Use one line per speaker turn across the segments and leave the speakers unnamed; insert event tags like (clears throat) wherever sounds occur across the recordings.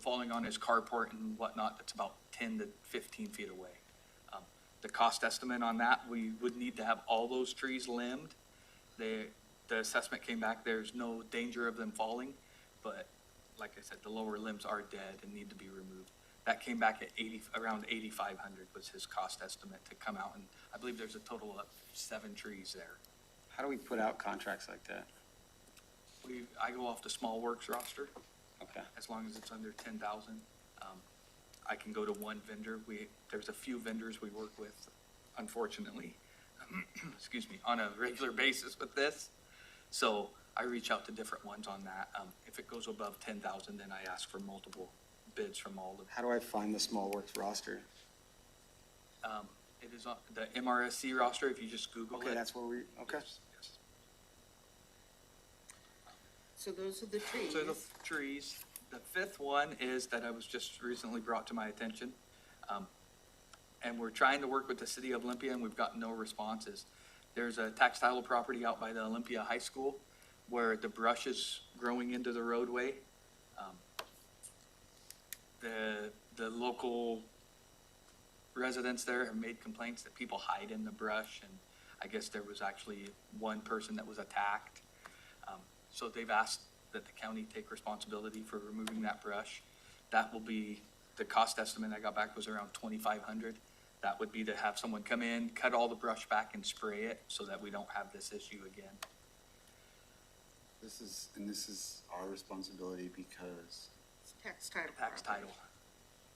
falling on his carport and whatnot, that's about ten to fifteen feet away. Um, The cost estimate on that, we would need to have all those trees limbed. The, the assessment came back, there's no danger of them falling, but like I said, the lower limbs are dead and need to be removed. That came back at eighty, around eighty-five hundred was his cost estimate to come out, and I believe there's a total of seven trees there.
How do we put out contracts like that?
We, I go off the small works roster.
Okay,
as long as it's under ten thousand. um, I can go to one vendor. We, there's a few vendors we work with, unfortunately, (clears throat) excuse me, on a regular basis with this. So I reach out to different ones on that. Um, If it goes above ten thousand, then I ask for multiple bids from all of
how do I find the small works roster?
them. um, It is on the MRSC roster, if you just Google it.
Okay, that's where we, okay.
Yes, yes.
So those are the trees.
So the trees, the fifth one is that I was just recently brought to my attention. Um, And we're trying to work with the city of Olympia and we've gotten no responses. There's a textile property out by the Olympia High School where the brush is growing into the roadway. Um, The, the local residents there have made complaints that people hide in the brush and I guess there was actually one person that was attacked. Um, So they've asked that the county take responsibility for removing that brush. That will be, the cost estimate I got back was around twenty-five hundred. That would be to have someone come in, cut all the brush back and spray it so that we don't have this issue again.
This is, and this is our responsibility because
It's Tax title.
Tax title.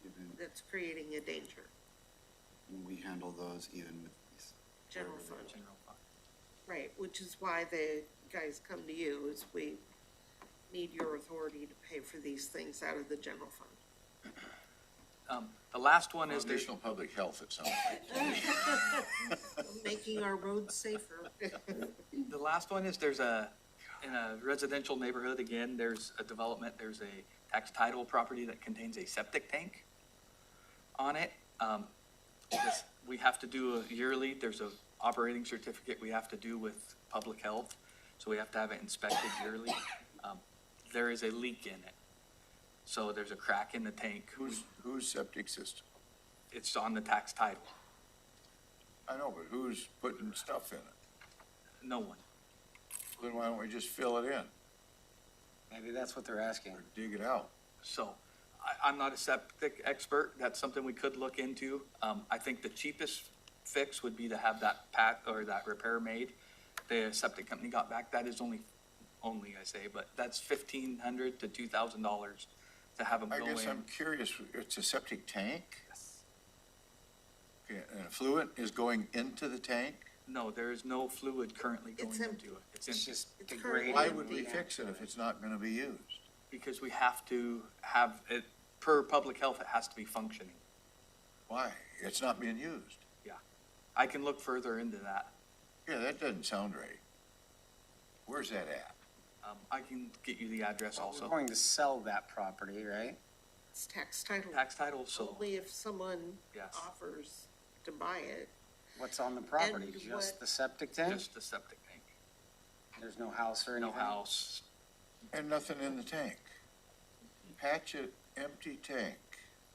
even
That's creating a danger,
when we handle those, even with these.
general
wherever
fund,
they-
General fund.
right, which is why the guys come to you, is we need your authority to pay for these things out of the general fund.
(laughs) Um, the last one is there's,
Additional public health at some point.
(laughs)
Making our roads safer.
the last one is there's a, in a residential neighborhood, again, there's a development, there's a tax title property that contains a septic tank on it. Um, this- we have to do a yearly, there's a operating certificate we have to do with public health, so we have to have it inspected yearly. Um, There is a leak in it, so there's a crack in the tank,
Who's, who's septic system?
it's on the tax title,
I know, but who's putting stuff in it?
no one.
Then why don't we just fill it in
Maybe that's what they're asking.
or dig it out?
So I, I'm not a septic expert. That's something we could look into. Um, I think the cheapest fix would be to have that pat or that repair made. The septic company got back, that is only, only I say, but that's fifteen hundred to two thousand dollars to have them
I
go
guess
in.
I'm curious, it's a septic tank? Okay, and Fluid is going into the tank?
No, there is no fluid currently going
It's
into
em-
it. It's
It's
empty
just
It's
degrading.
currently
Why would we
the-
fix it if it's not gonna be used?
because we have to have it, per public health, it has to be functioning.
Why? It's not being used.
I can look further into that.
Yeah, that doesn't sound right. Where's that at?
Um, I can get you the address
We're
also.
going to sell that property, right?
It's tax title.
Tax title, so,
Only if someone
yes.
offers to buy it.
What's on the property?
And
Just
what-
the septic tank?
Just the septic tank.
There's no house or
No
anything?
house.
And nothing in the tank. Patch it, empty tank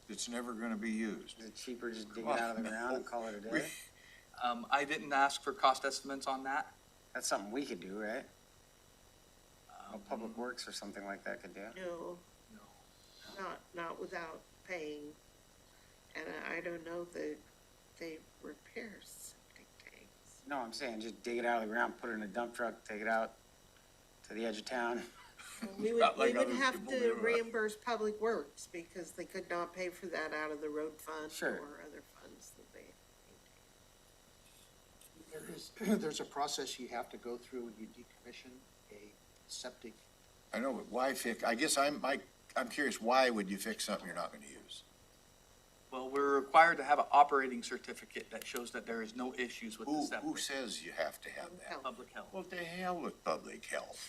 that's never gonna be used.
Is it cheaper just dig it out of the ground and call it a
We-
day?
Um, I didn't ask for cost estimates on that.
That's something we could do, right? Or
Oh,
Um,
Public
Mm-hmm.
Works or something like that could do.
No,
no.
not, not without paying. And I don't know that they repair septic tanks.
No, I'm saying just dig it out of the ground, put it in a dump truck, take it out to the edge of town.
We would,
Not
we
like
would
other
have
people
to
do that.
reimburse Public Works because they could not pay for that out of the road fund
Sure.
or other funds that they.
There is, (clears throat) there's a process you have to go through when you decommission a septic.
I know, but why fix, I guess I'm, I, I'm curious, why would you fix something you're not gonna use?
Well, we're required to have an operating certificate that shows that there is no issues with the
Who, who
septic.
says you have to have that?
Health.
Public health.
What the hell with public health?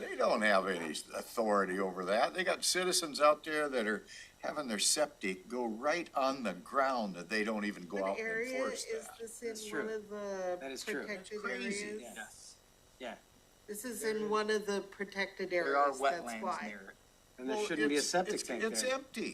They don't have any authority over that. They got citizens out there that are having their septic go right on the ground that they don't even go
What
out and
area
enforce
is
that.
this
That's
in one
true.
of the
That is true.
protected
That's crazy.
areas?
Yeah.
Yes.
This is in one of the protected areas,
There are
that's
wetlands
why.
near it.
And there
Well,
shouldn't be a
it's-
septic
it's-
tank there.
It's empty.